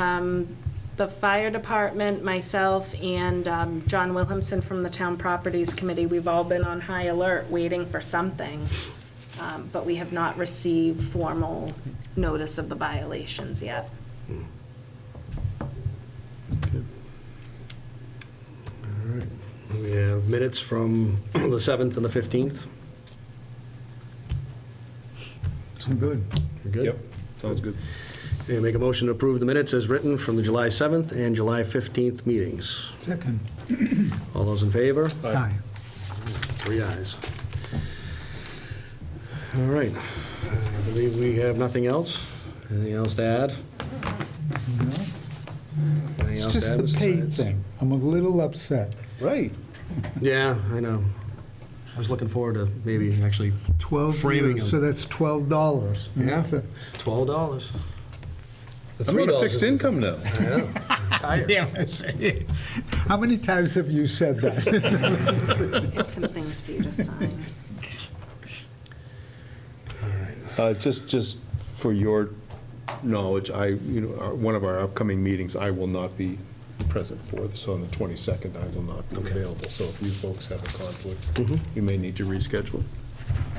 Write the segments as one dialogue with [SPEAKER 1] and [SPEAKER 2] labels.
[SPEAKER 1] um, the fire department, myself, and um, John Wilhamsen from the Town Properties Committee, we've all been on high alert, waiting for something, Um, but we have not received formal notice of the violations yet.
[SPEAKER 2] All right. We have minutes from the 7th and the 15th.
[SPEAKER 3] I'm good.
[SPEAKER 2] We're good?
[SPEAKER 4] Yep.
[SPEAKER 2] Sounds good. Okay, make a motion to approve the minutes as written from the July 7th and July 15th meetings.
[SPEAKER 3] Second.
[SPEAKER 2] All those in favor?
[SPEAKER 3] Aye.
[SPEAKER 2] Three ayes. All right. I believe we have nothing else. Anything else to add? Anything
[SPEAKER 3] It's
[SPEAKER 2] else to
[SPEAKER 3] just
[SPEAKER 2] add,
[SPEAKER 3] the
[SPEAKER 2] Mr.
[SPEAKER 3] pay
[SPEAKER 2] Science?
[SPEAKER 3] thing. I'm a little upset.
[SPEAKER 4] Right.
[SPEAKER 2] Yeah, I know. I was looking forward to maybe actually
[SPEAKER 3] 12
[SPEAKER 2] Framing
[SPEAKER 3] years, so
[SPEAKER 2] them.
[SPEAKER 3] that's $12. And
[SPEAKER 2] Yeah.
[SPEAKER 3] that's a-
[SPEAKER 2] $12. The
[SPEAKER 4] I'm on a
[SPEAKER 2] $3
[SPEAKER 4] fixed
[SPEAKER 2] is-
[SPEAKER 4] income now.
[SPEAKER 2] I know. Higher.
[SPEAKER 3] How many times have you said that?
[SPEAKER 1] I have some things for you to sign.
[SPEAKER 4] Uh, Just, just for your knowledge, I, you know, our- one of our upcoming meetings, I will not be present for, so on the 22nd, I will not be available. So if you folks have a conflict, you may need to reschedule.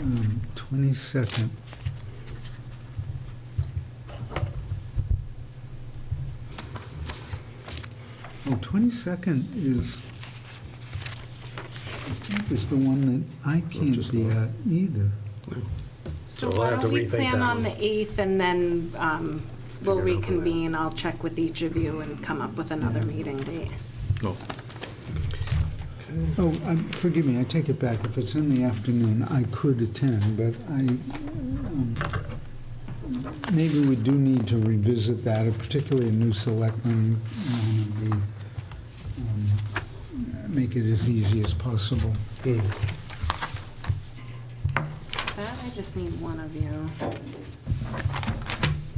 [SPEAKER 3] Um, 22nd. Well, 22nd Oh, is, I think is the one that I can't
[SPEAKER 4] just
[SPEAKER 3] be
[SPEAKER 4] look.
[SPEAKER 3] at either.
[SPEAKER 1] So
[SPEAKER 2] So we'll
[SPEAKER 1] why
[SPEAKER 2] have to
[SPEAKER 1] don't we
[SPEAKER 2] rethink
[SPEAKER 1] plan
[SPEAKER 2] that
[SPEAKER 1] on the
[SPEAKER 2] one.
[SPEAKER 1] 8th, and then um, we'll
[SPEAKER 2] Figure it out from there.
[SPEAKER 1] reconvene, I'll check with each of you and come up with another meeting date.
[SPEAKER 4] No.
[SPEAKER 3] Oh, um, forgive me, I take it back. If it's in the afternoon, I could attend, but I, um, maybe we do need to revisit that, and particularly a new selectman, um, we, um, make it as easy as possible.
[SPEAKER 1] That, I just need one of you.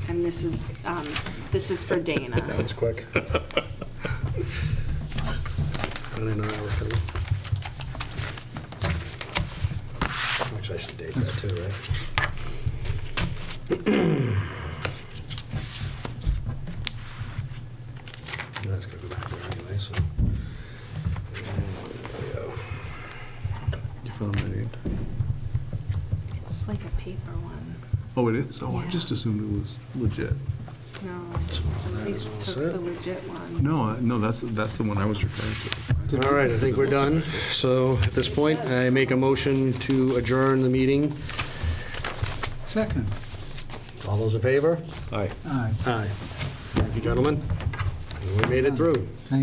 [SPEAKER 1] And this is, um, this is for
[SPEAKER 2] That
[SPEAKER 1] Dana.
[SPEAKER 2] was quick. I didn't know that was coming. Actually, I should date that too, right? That's gonna go back there anyway, so. There we go.
[SPEAKER 4] You found that eight?
[SPEAKER 1] It's like a paper one.
[SPEAKER 4] Oh, it is? Oh,
[SPEAKER 1] Yeah.
[SPEAKER 4] I just assumed it was legit.
[SPEAKER 1] No, somebody
[SPEAKER 2] That's
[SPEAKER 1] took
[SPEAKER 2] it.
[SPEAKER 1] the legit one.
[SPEAKER 4] No, I- no, that's, that's the one I was referring to.
[SPEAKER 2] All right, I think we're done. So at this point, I make a motion to adjourn the meeting.
[SPEAKER 3] Second,
[SPEAKER 2] All those in favor?
[SPEAKER 4] Aye.
[SPEAKER 3] aye,
[SPEAKER 2] Aye. Thank you, gentlemen. We made it through.
[SPEAKER 3] thank you.